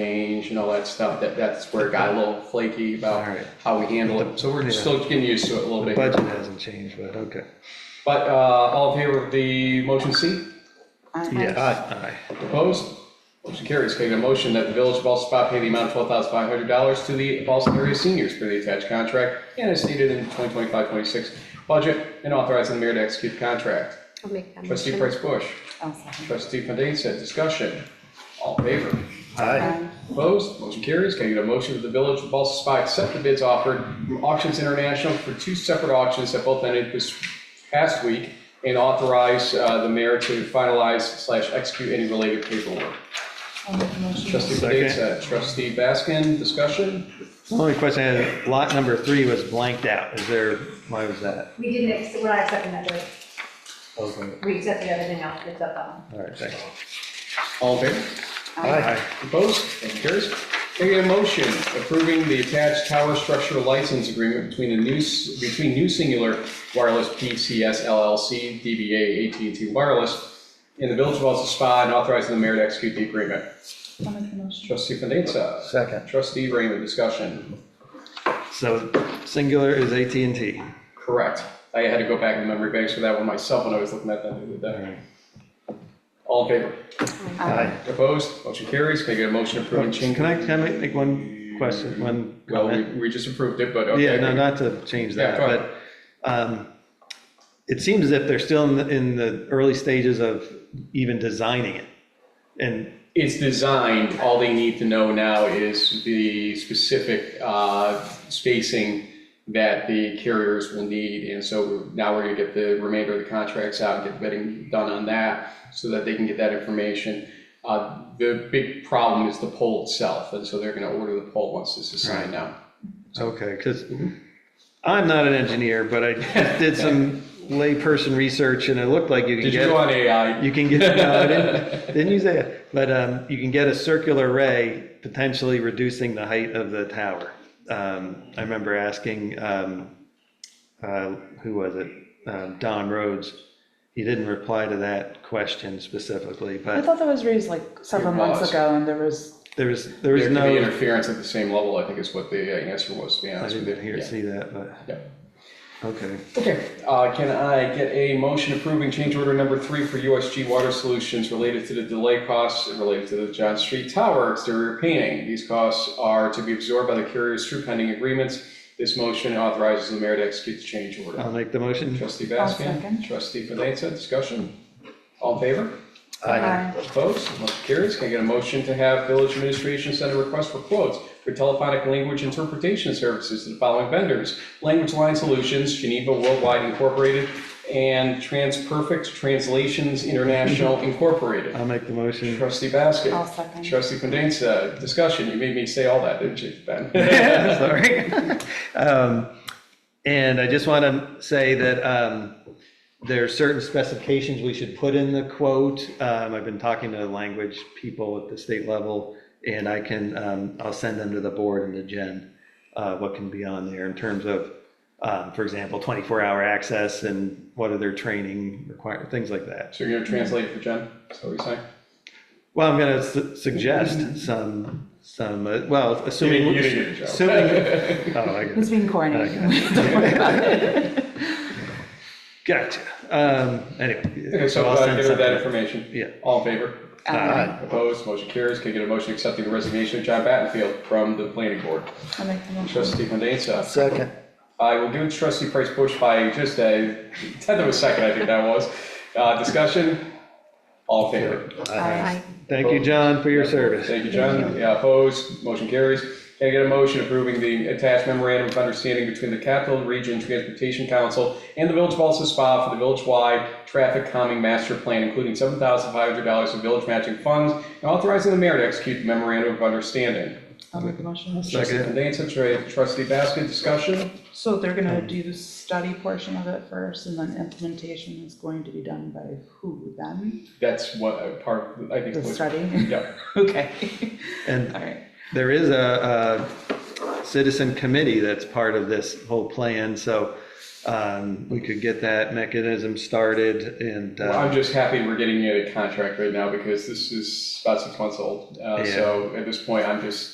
change and all that stuff, that, that's where it got a little flaky about Alright. how we handle it. So we're Yeah. still getting used to it a little The bit. budget hasn't changed, but okay. But, uh, all in favor of the motion C? Yes. Aye. Opposed? Motion carries. Can I get a motion that the Village of Ballston Spa pay the amount of twelve thousand five hundred dollars to the Ballston area seniors for the attached contract and as stated in 2025-26 budget and authorizing the mayor to execute the contract. I'll make that Trustee motion. Price Bush, I'll second. trustee Fandesa, discussion. All in favor? Aye. Um, Opposed? Motion carries. Can I get a motion that the Village of Ballston Spa accept the bids offered from Auctions International for two separate auctions that both ended this past week and authorize, uh, the mayor to finalize slash execute any related paperwork? I'll make a motion. Trustee Second. Fandesa, trustee Baskin, discussion? The Only question I had, lot number three was blanked out. Is there, why was that? We didn't, ex- we're not accepting that bid. Okay. We accepted everything else except that one. All right, thanks. All in favor? Aye. Opposed? Motion carries. Can I get a motion approving the attached tower structure license agreement between the new, between New Singular Wireless PCS LLC, DBA at and t Wireless, and the Village of Wellesley Spa, and authorizing the mayor to execute the agreement. Um, I'll make a motion. Trustee Fandesa. Second. Trustee Raymond, discussion. So singular is at and T. Correct. I had to go back in memory banks for that one myself when I was looking at that the other day. All in favor? Aye. Opposed? Motion carries. Can I get a motion approving change? Can I, can I make- make one question, one Well, we, comment? we just approved it, but okay. Yeah, no, not to change Yeah, that, go but um, it seems as if they're still in the, in the early stages of even designing it. And, It's designed, all they need to know now is the specific, uh, spacing that the carriers will need, and so now we're gonna get the remainder of the contracts out, get the bidding done on that, so that they can get that information. Uh, the big problem is the pole itself, and so they're gonna order the pole once this is signed now. okay, because I'm not an engineer, but I did some layperson research and it looked like you could Did you go get, on AI? you can get, no, I didn't, didn't use that. But um, you can get a circular ray, potentially reducing the height of the tower. Um, I remember asking, um, uh, who was it? Um, Don Rhodes. He didn't reply to that question specifically, I but thought that was raised like several It months was. ago and there was, there was, there was There could be no, interference at the same level, I think is what the uh, answer was, to be I honest with you. didn't hear, Yeah. see that, but. Yeah. Okay, Okay, uh, can I get a motion approving change order number three for USG Water Solutions related to the delay costs and related to the John Street Tower exterior painting? These costs are to be absorbed by the carriers through pending agreements. This motion authorizes the mayor to execute the change order. I'll make the motion. Trustee I'll second. Baskin? Trustee Fandesa, discussion? All in favor? Aye. Opposed? Motion carries. Can I get a motion to have village administration send a request for quotes for telephonic language interpretation services to the following vendors? Language Line Solutions, Geneva Worldwide Incorporated, and Transperfect Translations International Incorporated. I'll make the motion. Trustee I'll Baskin? second. Trustee Condenza, discussion. You made me say all that, didn't you, Ben? Sorry. Um, And I just want to say that um, there are certain specifications we should put in the quote. Um, I've been talking to language people at the state level, and I can, um, I'll send them to the board and to Jen, uh, what can be on there in terms of, um, for example, 24-hour access and what are their training require, things like that. So you're gonna translate it for Jen? Is that what you're saying? Well, I'm going to suggest some, some, uh, well, You assuming. didn't you didn't get Assuming, the job. oh, I get it. He's being corny. Okay. Don't worry about it. Gotcha. Um, anyway. Okay, so I'll uh, send give her that something. information. Yeah. All in favor? Aye. Opposed, motion carries. Can I get a motion accepting the resignation of John Battenfield from the planning board? I'll make the motion. Trustee Fandesa. Second. I will give trustee Price Bush by just a tenth of a second, I think that was. Uh, Discussion? All in favor? Aye. Aye. Thank you, John, for your service. Thank you, John. Yeah, opposed, motion carries. Can I get a motion approving the attached memorandum of understanding between the Capital Region Transportation Council and the Village of Alsa Spa for the village-wide traffic calming master plan, including seven thousand five hundred dollars in village matching funds, and authorizing the mayor to execute the memorandum of understanding? I'll make the motion. Trustee Second. Fandesa, tra- trustee Baskin, discussion? So they're gonna do the study portion of it first and then implementation is going to be done by who then? That's what uh, part, of- I think. The was- study? Yeah, Okay. All And right. there is a, a citizen committee that's part of this whole plan, so um, we could get that mechanism started and, Well, I'm uh, just happy we're getting a contract right now because this is about six months old. Uh, So at this point, I'm just